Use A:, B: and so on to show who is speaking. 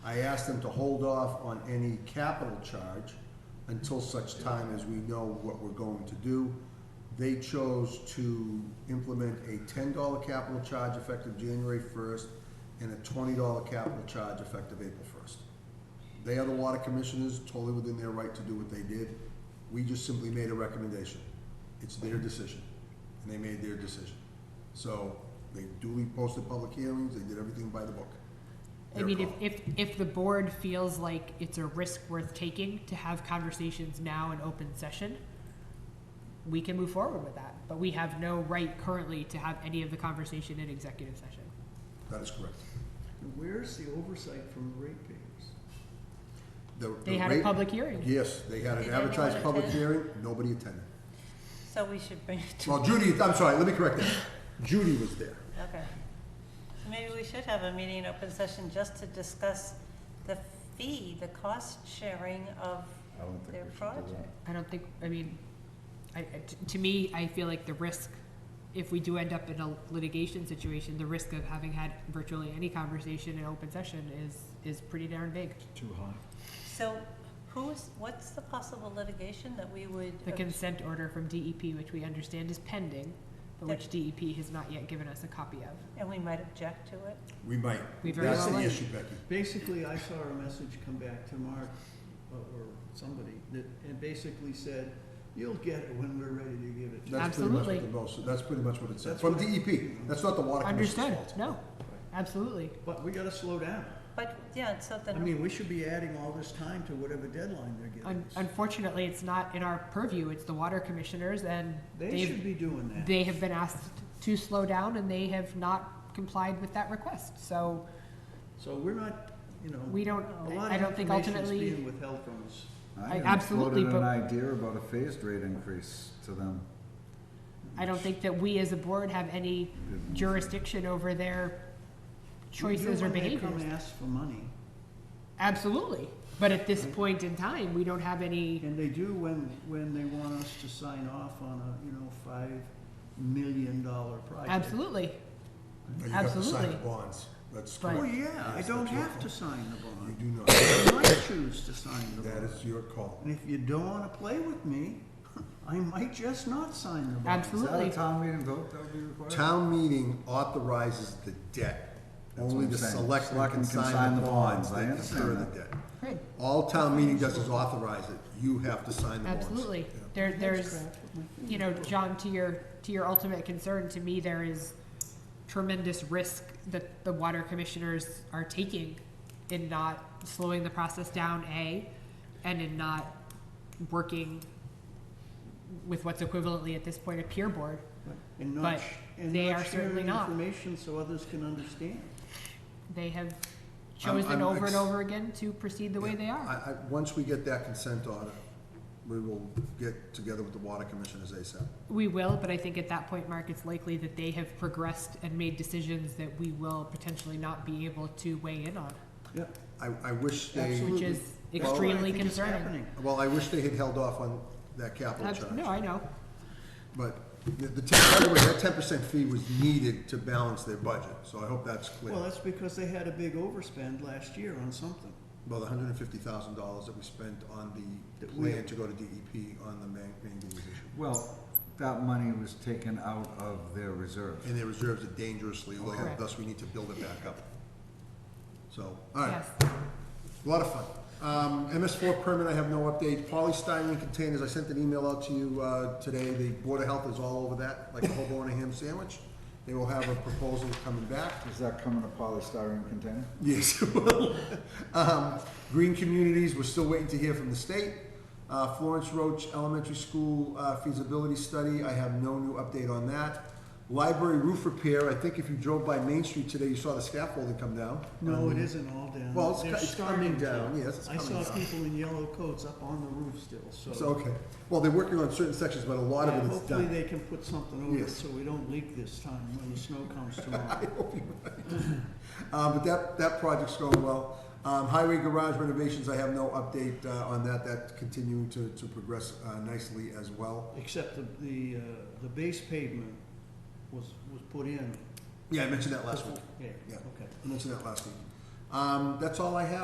A: I asked them to hold off on any capital charge until such time as we know what we're going to do. They chose to implement a ten dollar capital charge effective January first and a twenty dollar capital charge effective April first. They are the water commissioners, totally within their right to do what they did. We just simply made a recommendation. It's their decision, and they made their decision. So they duly posted public hearings, they did everything by the book.
B: I
A: Their
B: mean, if,
A: call.
B: if, if the board feels like it's a risk worth taking to have conversations now in open session, we can move forward with that, but we have no right currently to have any of the conversation in executive session.
A: That is correct.
C: Where's the oversight from the ratepayers?
A: The-
B: They
A: the
B: had a
A: rate-
B: public hearing.
A: Yes, they had
D: Did
A: an
D: anyone
A: advertised public
D: attend?
A: hearing, nobody attended.
D: So we should bring it to,
A: Well, Judy, I'm sorry, let me correct that. Judy was there.
D: okay. So Maybe we should have a meeting in open session just to discuss the fee, the cost sharing of
E: I don't think
D: their
E: we should do
D: project.
B: I don't think, I mean, I, I- t- to me, I feel like the risk, if we do end up in a litigation situation, the risk of having had virtually any conversation in open session is, is pretty darn big.
C: Too high.
D: So who's, what's the possible litigation that we would?
B: The consent order from DEP, which we understand is pending, but which DEP has not yet given us a copy of.
D: And we might object to it?
A: We might.
B: We very
A: That's
B: well
A: the
B: might.
A: issue, Becky.
C: Basically, I saw a message come back to Mark, uh, or somebody, that, and basically said, you'll get it when we're ready to give it to you.
A: That's pretty much what
B: Absolutely.
A: the most, that's pretty much what it said,
C: That's
A: from
C: what-
A: DEP. That's not the water commission's fault.
B: Understood, no, absolutely.
C: But we gotta slow down.
D: But, yeah, so
C: I
D: then,
C: mean, we should be adding all this time to whatever deadline they're giving
B: Un-
C: us.
B: Unfortunately, it's not in our purview, it's the water commissioners, and
C: They should
B: they've,
C: be doing that.
B: they have been asked to slow down, and they have not complied with that request, so
C: So we're not, you
B: we
C: know,
B: don't,
C: a lot
B: I
C: of
B: don't think
C: information is
B: ultimately,
C: being withheld from us.
B: I
E: even
B: absolutely,
E: floated an
B: but-
E: idea about a phased rate increase to them.
B: I don't think that we as a board have any
E: Didn't-
B: jurisdiction over their
C: We do
B: choices or
C: when
B: behaviors.
C: they come ask for money,
B: Absolutely, but at this point in time, we don't have any,
C: and they do when, when they want us to sign off on a, you know, five million dollar project.
B: absolutely,
A: No, You have to sign the
B: Absolutely.
A: bonds, that's
B: Right.
C: Oh,
A: correct.
C: yeah, I
A: Yes,
C: don't
A: that's your
C: have to
A: call.
C: sign the
A: You
C: bond.
A: do not,
C: I might choose to sign the
A: that
C: bond.
A: is your call.
C: And if you don't wanna play with me, I might just not sign the bond.
E: Is that a
B: absolutely.
E: town meeting vote that would be required?
A: Town meeting authorizes the debt.
E: That's
A: Only
E: what
A: the
E: I'm saying.
A: selectmen can sign the bonds
E: I
A: that
E: understand
A: incur the
E: that.
A: debt.
B: Right.
A: All town meeting does is authorize it. You have to sign the bonds.
B: Absolutely.
A: Yeah.
B: There,
C: That's
B: there's,
C: crap with my
B: you know, John, to your, to your ultimate concern, to me, there is tremendous risk that the water commissioners are taking in not slowing the process down, A, and in not working with what's equivalently at this point a peer board.
C: And
B: But
C: not, sh- and
B: they
C: not
B: are certainly
C: sharing
B: not.
C: information so others can understand.
B: They have
A: I'm-
B: chosen
A: I'm
B: over and
A: ex-
B: over again to proceed the way they are.
A: I, I, once we get that consent order, we will get together with the water commissioners ASAP.
B: We will, but I think at that point, Mark, it's likely that they have progressed and made decisions that we will potentially not be able to weigh in on,
C: Yep.
A: I, I wish they,
C: Absolutely.
B: which is
C: That's what I
B: extremely
C: think is
B: concerning.
C: happening.
A: well, I wish they had held off on that capital
B: Abs- No,
A: charge.
B: I know,
A: But the, the, ten- by the way, that ten percent fee was needed to balance their budget, so I hope that's clear.
C: Well, that's because they had a big overspend last year on something.
A: About hundred and fifty thousand dollars that we spent on the
C: That we-
A: plan to go to DEP on the man- manganese issue.
E: Well, that money was taken out of their reserve.
A: And their reserves are dangerously low,
B: Correct.
A: thus we need to build it back up. So, all right.
B: yes.
A: A lot of fun. Um, MS4 permit, I have no update. Polystyrene containers, I sent an email out to you uh, today. The Board of Health is all over that, like a hobo and a ham sandwich. They will have a proposal coming back.
E: Is that coming to polystyrene container?
A: Yes, it will. um, green communities, we're still waiting to hear from the state. Uh, Florence Roach Elementary School uh, feasibility study, I have no new update on that. Library roof repair, I think if you drove by Main Street today, you saw the scaffolding come down.
C: No, it isn't all down.
A: Um, Well, it's
C: They're
A: co- it's coming
C: starting to.
A: down, yes, it's coming
C: I saw
A: down.
C: people in yellow coats up on the roof still, so.
A: So, okay. Well, they're working on certain sections, but a lot
C: Yeah,
A: of it is
C: Hopefully
A: done.
C: they can put something over it
A: Yes.
C: so we don't leak this time when the snow comes
A: I
C: tomorrow.
A: hope you're right. Uh, but that, that project's going well. Um, highway garage renovations, I have no update, uh, on that. That's continuing to, to progress, uh, nicely as well.
C: Except the, the, uh, the base pavement was, was put in.
A: Yeah, I mentioned that last week.
C: Yeah,
A: Yeah.
C: okay.
A: I mentioned that last week. Um, that's all I have.